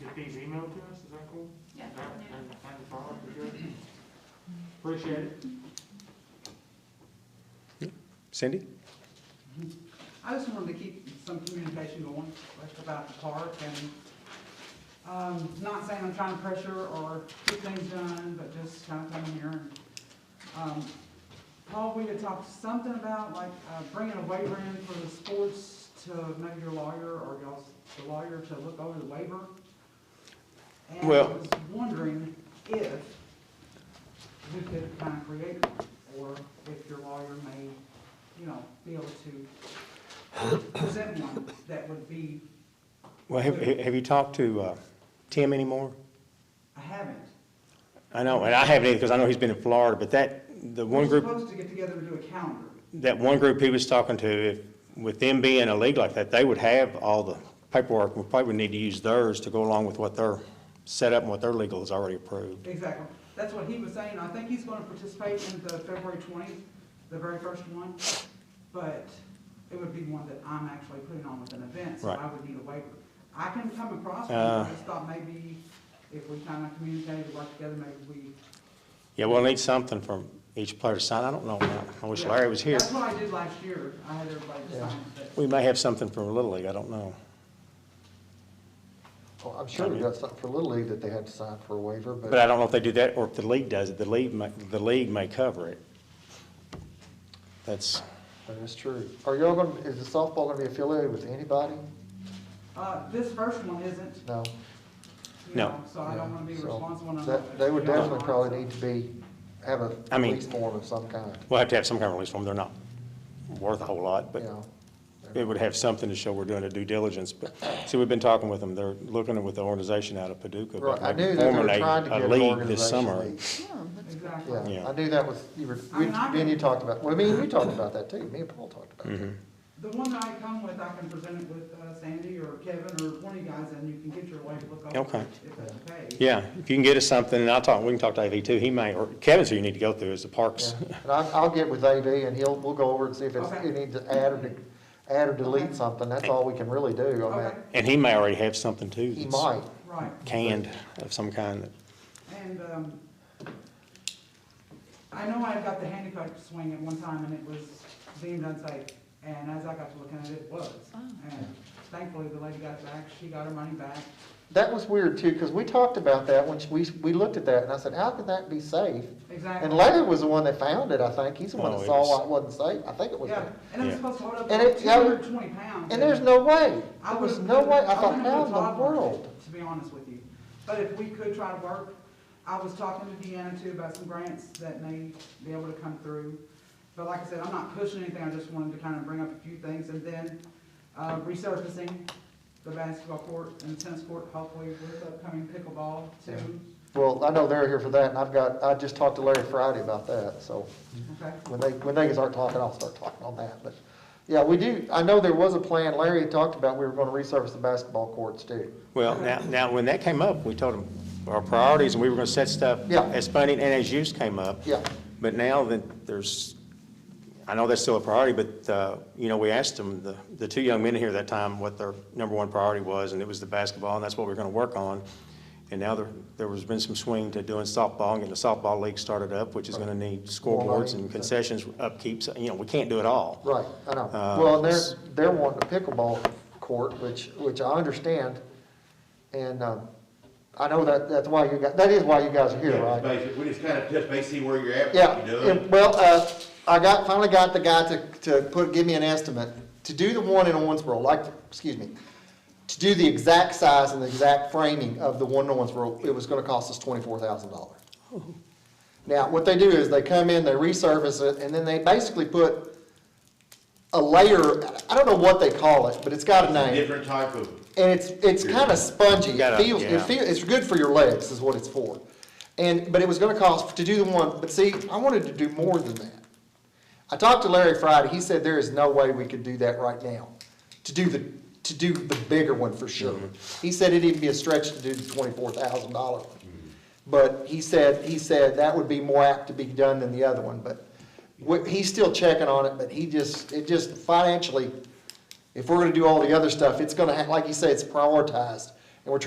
get these emailed to us, is that cool? Yeah. That- And, and follow up, we good? Appreciate it. Cindy? I just wanted to keep some communication going like about the park and, um, not saying I'm trying to pressure or get things done, but just kind of coming here and, um, Paul, we had talked something about like uh, bringing a waiver in for the sports to maybe your lawyer or y'all's, the lawyer to look over the waiver. And I Well- was wondering if we could kind of create one, or if your lawyer may, you know, be able to present one that would be, Well, have, have you talked to, uh, Tim anymore? I haven't. I know, and I haven't either, because I know he's been in Florida, but that, the one group, We're supposed to get together and do a calendar. that one group he was talking to, if, with them being a league like that, they would have all the paperwork. We probably would need to use theirs to go along with what their setup and what their legal is already approved. Exactly. That's what he was saying. I think he's gonna participate in the February twentieth, the very first one. But it would be one that I'm actually putting on with an event, so Right. I would need a waiver. I can come across, with it. Uh. I just thought maybe if we kinda communicated, work together, maybe we. Yeah, we'll need something from each player to sign. I don't know. I wish Yeah. Larry was here. That's what I did last year. I had everybody sign it. We may have something from Little League, I don't know. Well, I'm sure we got something for Little League that they had to sign for a waiver, But I but don't know if they do that or if the league does it. The league may, the league may cover it. That's, that is true. Are y'all gonna, is the softball gonna be affiliated with anybody? Uh, this first one isn't, No. you No. know, so I don't wanna be Yeah, so responsible. and I'm that- not- They would you know, definitely I'm- probably need to be, have a I mean- release form of some kind, we'll have to have some kind of release form. They're not worth a whole lot, you but know. it would have something to show we're doing a due diligence. But, see, we've been talking with them. They're looking with the organization out of Paducah. Right, about I knew that they were forming a- trying to a get an league this summer. organization. Exactly. Yeah, Yeah. I knew that was, you were, I we- mean, I me and you can- talked about, well, me and you talked about that too, me and Paul talked about Mm-hmm. it. The one that I come with, I can present it with uh, Sandy or Kevin or one of you guys, and you can get your way to look over. it, Okay. If that's okay. Yeah, if you can get us something, and I'll talk, we can talk to AV too. He may, or Kevin's who you need to go through is the parks. Yeah. And I, I'll get with AV and he'll, we'll go over and see if it's, Okay. you need to add or, de- add or Okay. delete something, that's all we can really do, I Okay, mean, And he may already have something too. he that's might. right, Canned of some kind that and, um, I know I got the handicap swing at one time, and it was deemed unsafe, and as I got to looking at it, it was. And thankfully, the lady got it back, she got her money back, That was weird too, because we talked about that when we, we looked at that and I said, how could that be safe? exactly. And Larry was the one that found it, I think. He's the one Oh, that it saw was- why it wasn't safe. I think it was. Yeah, him. and it was Yeah. supposed to hold up And to it- two yeah, hundred and twenty pounds. And there's no way. I There was would've- no way. I thought, wouldn't how have in the thought about world? it, To be honest with you, but if we could try to work, I was talking to Deanna too about some grants that may be able to come through. But like I said, I'm not pushing anything, I just wanted to kind of bring up a few things, and then, uh, resurfacing the basketball court and tennis court, hopefully with upcoming pickleball too, Well, I know they're here for that and I've got, I just talked to Larry Friday about that, so okay? when they, when they start talking, I'll start talking on that, but, yeah, we do, I know there was a plan. Larry had talked about we were gonna resurface the basketball courts too. Well, now, now, when that came up, we told them our priorities, and we were gonna set stuff Yeah. as funding and as use came up. Yeah. But now that there's, I know that's still a priority, but, uh, you know, we asked them, the, the two young men here that time, what their number one priority was, and it was the basketball, and that's what we're gonna work on. And now there, there has been some swing to doing softball, and getting the softball league started up, which is gonna need scoreboards and concessions, upkeep, so, you know, we can't do it all. Right, I know. Uh, Well, and they're, they're wanting a pickleball court, which, which I understand. And, um, I know that, that's why you got, that is why you guys are here, Yeah, right? basi- we just kind of touch base, see where you're at, Yeah, what you're and- doing. well, uh, I got, finally got the guy to, to put, give me an estimate, to do the one in Owensboro, like, excuse me, to do the exact size and the exact framing of the one in Owensboro, it was gonna cost us twenty-four thousand dollars. Now, what they do is they come in, they resurface it, and then they basically put a layer, I don't know what they call it, but it's got a It's a name. Different type of, And it's, it's kind of spongy, You it gotta- feels, yeah. it feels, it's good for your legs is what it's for. And, but it was gonna cost, to do the one, but see, I wanted to do more than that. I talked to Larry Friday, he said there is no way we could do that right now, to do the, to do the bigger one for sure. Mm-hmm. He said it'd even be a stretch to do the twenty-four thousand dollar one. But he said, he said that would be more apt to be done than the other one, but wh- he's still checking on it, but he just, it just financially, if we're gonna do all the other stuff, it's gonna, ha- like you say, it's prioritized.